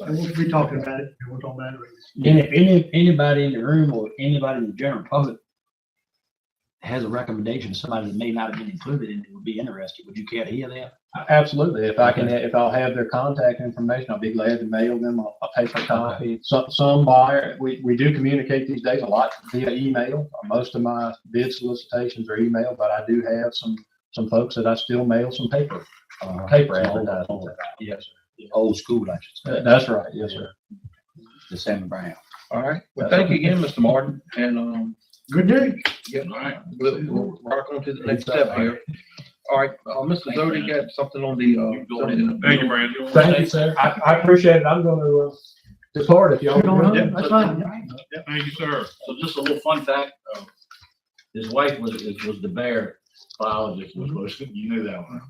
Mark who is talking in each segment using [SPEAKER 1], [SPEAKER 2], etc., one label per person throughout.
[SPEAKER 1] And we'll be talking about it, we're talking about it.
[SPEAKER 2] And if any, anybody in the room or anybody in the general public has a recommendation, somebody that may not have been included in it would be interested, would you care to hear that?
[SPEAKER 3] Absolutely. If I can, if I'll have their contact information, I'll be glad to mail them a, a paper copy. Some, some buyer, we, we do communicate these days a lot via email. Most of my bid solicitations are email, but I do have some, some folks that I still mail some paper, uh, paper advertisements. Yes, sir.
[SPEAKER 2] Uh-huh. Old school, I should
[SPEAKER 3] That-
[SPEAKER 2] say,
[SPEAKER 3] That's right. Yes, sir.
[SPEAKER 2] the Sam Brown.
[SPEAKER 4] All right.
[SPEAKER 2] Uh,
[SPEAKER 4] Well, thank you again, Mr. Martin, and, um,
[SPEAKER 1] Good news.
[SPEAKER 4] yeah, all right, we'll, we'll rock on to the next step here. All right, uh, Mr. Zodi got something on the, uh. zoning.
[SPEAKER 5] Thank you, Brandon.
[SPEAKER 3] Thank you, sir. I, I appreciate it. I'm going to depart if y'all.
[SPEAKER 1] You're going home? That's fine.
[SPEAKER 5] Thank you, sir.
[SPEAKER 2] So just a little fun fact, uh, his wife was, is- was the bear biologist, was, was, you knew that one.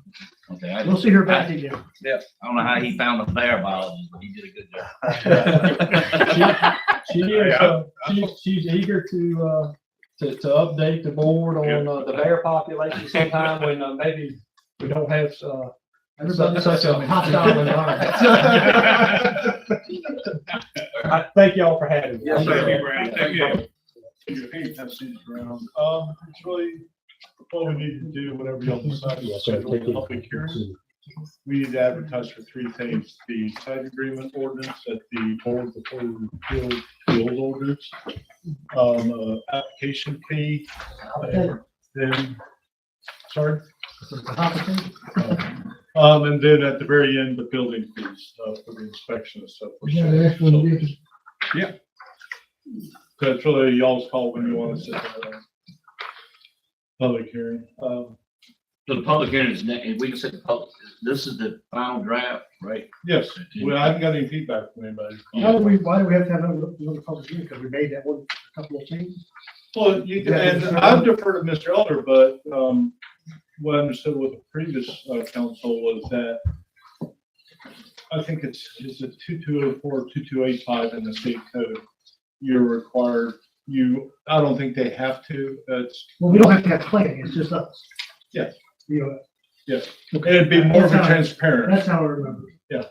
[SPEAKER 2] Okay, I
[SPEAKER 1] We'll
[SPEAKER 2] just-
[SPEAKER 1] see her back again.
[SPEAKER 2] I don't know how he found the bear biologist, but he did a good job.
[SPEAKER 3] She is, uh, she's, she's eager to, uh, to, to update the board on, uh, the bear population sometime when, uh, maybe we don't have, uh, such, such a hostile environment. I thank y'all for having me.
[SPEAKER 4] Yes,
[SPEAKER 5] Thank you, Brandon. Thank you.
[SPEAKER 6] Um, it's really, what we need to do, whatever y'all decide, is schedule a public hearing. We need to advertise for three things, the site agreement ordinance at the board before we repeal the old ordinance. Um, uh, application fee, and then, sorry? Uh, Um, and then at the very end, the building fees, uh, for the inspection and stuff. Yeah. So it's really y'all's call when you want to sit down. and Public hearing, um,
[SPEAKER 2] So the public hearing is, ne- if we can set the public, this is the final draft, right?
[SPEAKER 6] yes, well, I haven't got any feedback from anybody.
[SPEAKER 1] Why do we, why do we have to have another another public hearing? Because we made that one, a couple of changes.
[SPEAKER 6] Well, you, and I've deferred to Mr. Elder, but, um, what I understood with the previous, uh, council was that I think it's, is it two two oh four, two two eight five in the state code? You're required, you, I don't think they have to, that's,
[SPEAKER 1] Well, we don't have to have a plan, it's just us.
[SPEAKER 6] Yes.
[SPEAKER 1] You know,
[SPEAKER 6] it'd be more of a transparent.
[SPEAKER 1] that's how I remember. it.
[SPEAKER 6] Yeah.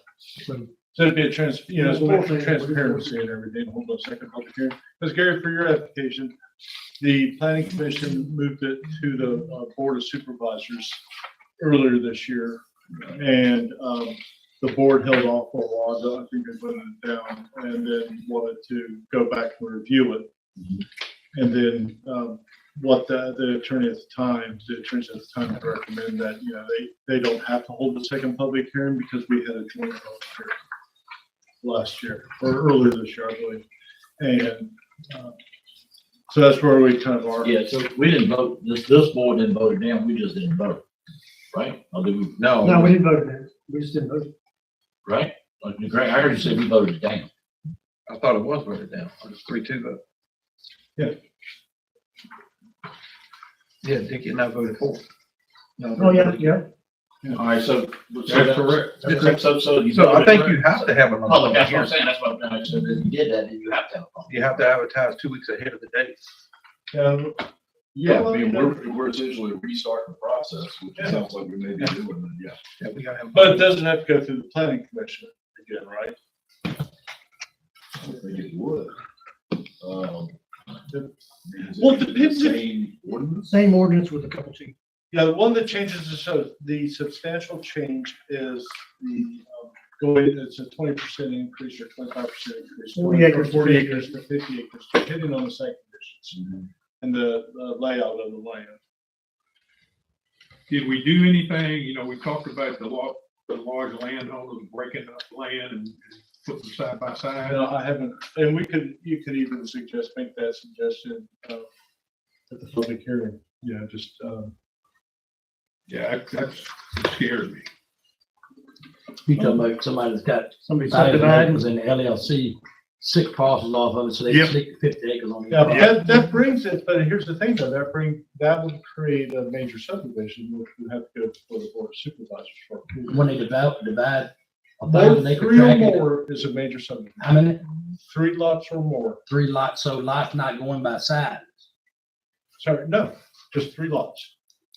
[SPEAKER 1] So,
[SPEAKER 6] So it'd be a trans, you know, it's more
[SPEAKER 1] Yeah.
[SPEAKER 6] transparency and everything, hold on a second, public hearing. Because Gary, for your application, the planning commission moved it to the uh, board of supervisors earlier this year. And, um, the board held off for a while, though I think they put it down and then wanted to go back and review it. And then, um, what the, the attorney at the time, the attorney at the time had recommended that, you know, they, they don't have to hold a second public hearing because we had a joint public hearing last year or earlier this year, I believe. And uh, so that's where we kind of are.
[SPEAKER 2] Yeah, so we didn't vote, this, this board didn't vote it down, we just didn't vote, right? Or did we?
[SPEAKER 1] No, we didn't vote on it. We just didn't vote.
[SPEAKER 2] Right? Like, Greg, I heard you say we voted it down.
[SPEAKER 4] I thought it was voted down, it was three two vote.
[SPEAKER 6] Yeah.
[SPEAKER 4] Yeah, Dickie and I voted for. it. No,
[SPEAKER 1] Oh, yeah, yeah.
[SPEAKER 2] All right, so. so
[SPEAKER 6] That's correct.
[SPEAKER 2] So, so- so you.
[SPEAKER 4] So I think you have to have another.
[SPEAKER 2] Public, that's what I'm saying, that's what I'm trying to say, if you did that, then you have to have a public.
[SPEAKER 4] You have to advertise two weeks ahead of the date.
[SPEAKER 6] Um,
[SPEAKER 7] Yeah,
[SPEAKER 6] Well,
[SPEAKER 7] I mean,
[SPEAKER 6] you know-
[SPEAKER 7] we're, we're essentially restarting the process, which it sounds like we may be doing, but yeah.
[SPEAKER 4] Yeah, we gotta have.
[SPEAKER 6] But it doesn't have to go through the planning commission again, right?
[SPEAKER 7] I don't think it would. Um, is
[SPEAKER 6] Well,
[SPEAKER 7] it
[SPEAKER 6] it depends if-
[SPEAKER 7] Same ordinance?
[SPEAKER 1] Same ordinance with a couple changes.
[SPEAKER 6] Yeah, the one that changes is, so the substantial change is the, um, going, it's a twenty percent increase or twenty-five percent increase.
[SPEAKER 1] Forty acres to
[SPEAKER 6] Forty
[SPEAKER 1] 50
[SPEAKER 6] acres to fifty acres, depending on the site conditions and the uh, layout of the land.
[SPEAKER 5] Did we do anything, you know, we talked about the lot, the large landowners breaking up land and putting them side by
[SPEAKER 6] I
[SPEAKER 5] side.
[SPEAKER 6] know, I haven't, and we could, you could even suggest, make that suggestion, uh, at the public hearing, you know, just,
[SPEAKER 5] uh,
[SPEAKER 6] um,
[SPEAKER 5] Yeah, that- that's, that scares me.
[SPEAKER 2] You talking about somebody that's got
[SPEAKER 1] Somebody
[SPEAKER 2] five
[SPEAKER 1] subdivided.
[SPEAKER 2] acres in the LLC, six parcels off of it, so they
[SPEAKER 5] Yep.
[SPEAKER 2] stick fifty acres on. each
[SPEAKER 6] Yeah, but
[SPEAKER 2] parcel.
[SPEAKER 6] that, that brings it, but here's the thing though, that bring, that would create a major subdivision, which would have to go before the board of supervisors for. approval.
[SPEAKER 2] When they develop, divide a
[SPEAKER 6] More,
[SPEAKER 2] thousand acre
[SPEAKER 6] three or
[SPEAKER 2] tract, into-
[SPEAKER 6] more is a major subdivision,
[SPEAKER 2] how many,
[SPEAKER 6] three lots or more,
[SPEAKER 2] three lots, so lots not going by side.
[SPEAKER 6] sorry, no, just three lots.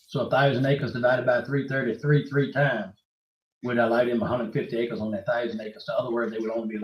[SPEAKER 2] So a thousand acres divided by three thirty-three, three times, would allow them hundred and fifty acres on that thousand acres. So other words, they would only be